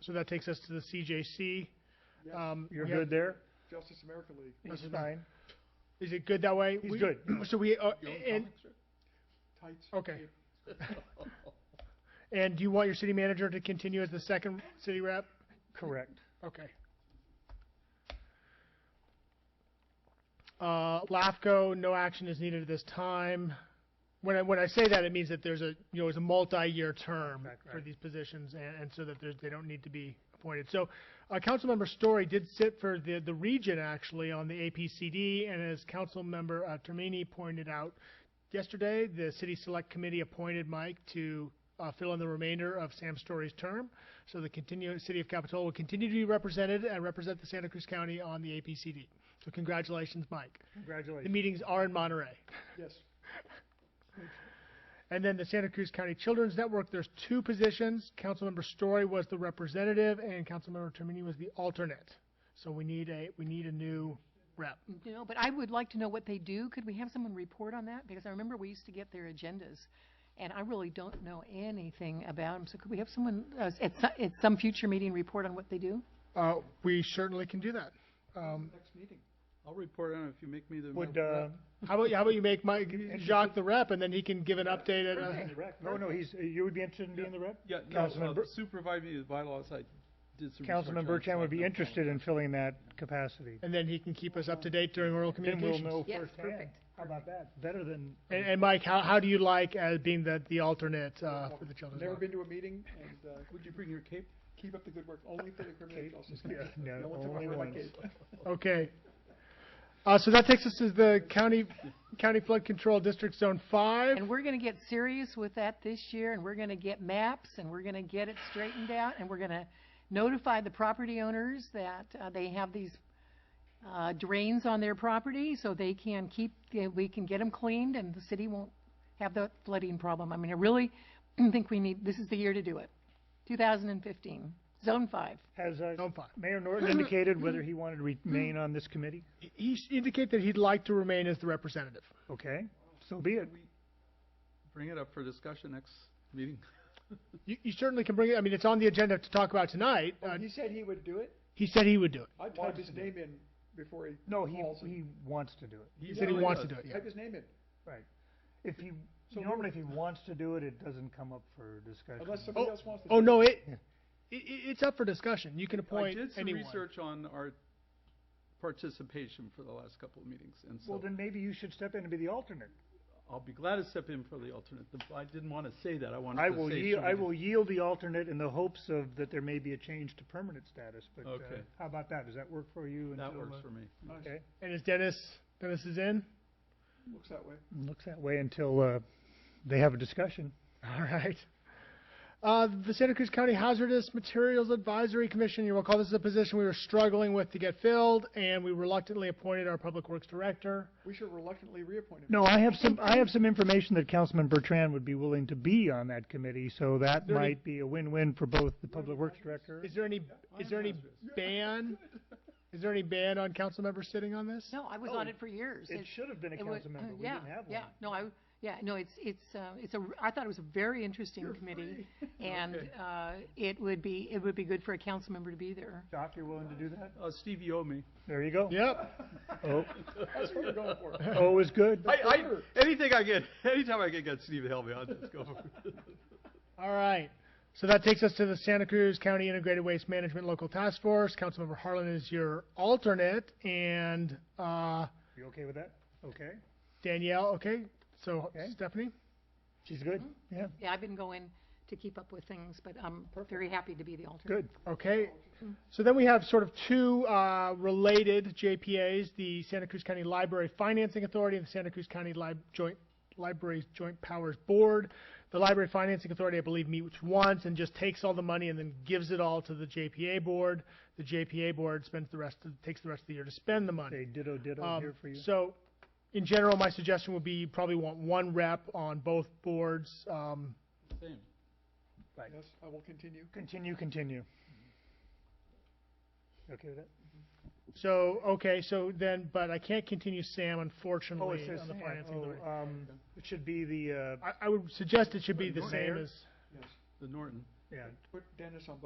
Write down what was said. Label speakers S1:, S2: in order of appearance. S1: So that takes us to the CJC.
S2: Yeah.
S1: Um,
S2: You're
S1: we have-
S2: good there?
S3: Justice America League.
S2: He's
S1: That's
S2: fine.
S1: Is it good that way?
S2: He's
S1: We-
S2: good.
S1: So we, uh,
S3: You own
S1: and,
S3: comics, sir? Tights.
S1: Okay.
S3: cape.
S1: and do you want your city manager to continue as the second city rep?
S2: Correct.
S1: Okay. Uh, LAFCO, no action is needed at this time. When I, when I say that, it means that there's a, you know, it's a multi-year term
S2: Right,
S1: for
S2: right.
S1: these positions, and, and so that there's, they don't need to be appointed. So, uh, Councilmember Story did sit for the, the region, actually, on the APCD, and as Councilmember, uh, Termini pointed out yesterday, the City Select Committee appointed Mike to, uh, fill in the remainder of Sam Story's term. So the continue, city of Capitola will continue to be represented and represent the Santa Cruz County on the APCD. So congratulations, Mike. The
S2: Congratulations.
S1: meetings are in Monterey.
S3: Yes,
S1: And then the Santa Cruz County Children's Network, there's two positions. Councilmember Story was the representative and Councilmember Termini was the alternate. So we need a, we need a new rep.
S4: No, but I would like to know what they do. Could we have someone report on that? Because I remember we used to get their agendas, and I really don't know anything about them. So could we have someone, uh, at some, at some future meeting, report on what they do?
S1: Uh, we certainly can do that. Um,
S3: next meeting.
S5: I'll report on it if you make me the.
S2: Would,
S5: rep.
S2: uh,
S1: how about, how about you make Mike, Jacques the rep and then he can give an update at, uh,
S2: no, no, he's, you would be interested in being the rep?
S5: Yeah, no,
S2: Councilman
S5: uh,
S2: Bur-
S5: supervise me with bylaws, I did some. research
S2: Councilman
S5: on it,
S2: Burchan
S5: so
S2: would
S5: I
S2: be
S5: know.
S2: interested in filling that capacity.
S1: and then he can keep us up to date during oral
S2: Then we'll
S1: communications.
S2: know
S4: Yes,
S2: firsthand.
S4: perfect.
S2: How about that? Better than,
S1: And, and Mike, how, how do you like uh, being the, the alternate uh, for the children's?
S3: Never
S1: Network?
S3: been to a meeting, and uh,
S5: Would you bring your cape?
S3: keep up the good work, only for the criminal
S2: Cape.
S3: justice.
S2: Yeah,
S3: committee.
S2: no,
S3: one took
S2: only
S3: over my
S2: once.
S3: cape.
S1: Okay. Uh, so that takes us to the county county flood control district zone five.
S4: And we're gonna get serious with that this year, and we're gonna get maps, and we're gonna get it straightened out, and we're gonna notify the property owners that, uh, they have these, uh, drains on their property, so they can keep, yeah, we can get them cleaned, and the city won't have the flooding problem. I mean, I really think we need, this is the year to do it. Two thousand and fifteen, zone five.
S2: has, uh,
S1: Zone five.
S2: Mayor Norton indicated whether he wanted to remain on this committee?
S1: He- He s- indicated that he'd like to remain as the representative.
S2: Okay, so be it.
S5: Can we Bring it up for discussion next meeting.
S1: You, you certainly can bring it. I mean, it's on the agenda to talk about tonight.
S3: Well,
S1: Uh,
S3: He said he would do it.
S1: he said he would do it.
S3: I typed his name in before he.
S2: No, he,
S3: calls and-
S2: he wants to do it.
S1: He said he
S5: really
S1: wants to
S5: does.
S1: do it. Yeah.
S3: Type his name in,
S2: Right. If he,
S3: So we
S2: normally if he wants to do it, it doesn't come up for discussion.
S3: unless somebody else wants to.
S1: Oh
S3: do
S1: no,
S3: it.
S1: it, it it- it's up for discussion. You can
S5: I
S1: appoint
S5: did some
S1: anyone.
S5: research on our participation for the last couple of meetings, and
S2: Well,
S5: so
S2: then maybe you should step in and be the alternate.
S5: I'll be glad to step in for the alternate. The- I didn't want to say that, I wanted
S2: I
S5: to say.
S2: will
S5: should
S2: yield, I
S5: we-
S2: will yield the alternate in the hopes of that there may be a change to permanent status, but, uh,
S5: Okay.
S2: how about that? Does that work for you?
S5: That
S2: until,
S5: works
S2: uh,
S5: for me.
S2: Okay,
S1: And is Dennis Dennis is in?
S3: Looks that way.
S2: looks that way until, uh, they have a discussion.
S1: All right. Uh, the Santa Cruz County Hazardous Materials Advisory Commission, you recall this is a position we were struggling with to get filled, and we reluctantly appointed our Public Works Director.
S3: We should reluctantly reappoint him.
S2: No, I have some, I have some information that Councilman Bertrand would be willing to be on that committee, so that
S1: there any-
S2: might be a win-win for both the Public Works Director.
S1: Is there any, is there any ban? Is there any ban on council members sitting on this?
S4: No, I was
S2: Oh,
S4: on it for years.
S2: It should have been a
S4: it wa-
S2: council member,
S4: uh,
S2: we
S4: yeah,
S2: didn't have one.
S4: Yeah, no, I, yeah, no, it's, it's, uh, it's a, r- I thought it was a very interesting committee. And, uh, it would be, it would be good for a council member to be there.
S2: Doc, you're willing to do that?
S5: Uh, Steve, you owe me.
S2: There you go.
S1: Yep,
S2: Oh,
S3: That's what you're going for.
S2: oh is good.
S5: I, I, anything I get, anytime I can get Steve to help me, I'll just go for it.
S1: all right. So that takes us to the Santa Cruz County Integrated Waste Management Local Task Force. Councilmember Harlan is your alternate, and, uh,
S2: You okay with that? Okay,
S1: Danielle, okay? So
S2: Okay.
S1: Stephanie?
S2: she's good,
S1: Mm-hmm.
S2: yeah,
S4: Yeah, I've been going to keep up with things, but I'm very happy to be the alternate.
S2: good.
S1: Okay, so then we have sort of two uh, related JPAs, the Santa Cruz County Library Financing Authority and the Santa Cruz County Lib- Joint Libraries Joint Powers Board. The Library Financing Authority, I believe, meets once and just takes all the money and then gives it all to the JPA board. The JPA board spends the rest, of- takes the rest of the year to spend the money.
S2: Say ditto ditto
S1: Um,
S2: here for you.
S1: So, in general, my suggestion would be you probably want one rep on both boards. um,
S5: Same.
S3: Yes, I will continue.
S2: Continue, continue. You Okay with that?
S1: So, okay, so then, but I can't continue Sam,
S2: Oh,
S1: unfortunately,
S2: it says
S1: on the
S2: Sam.
S1: financing
S2: Oh,
S1: authority.
S2: um, it should be the, uh,
S1: I, I would suggest it should be the
S2: Mayor?
S1: same as.
S3: Yes.
S5: The Norton.
S2: yeah,
S3: Put Dennis on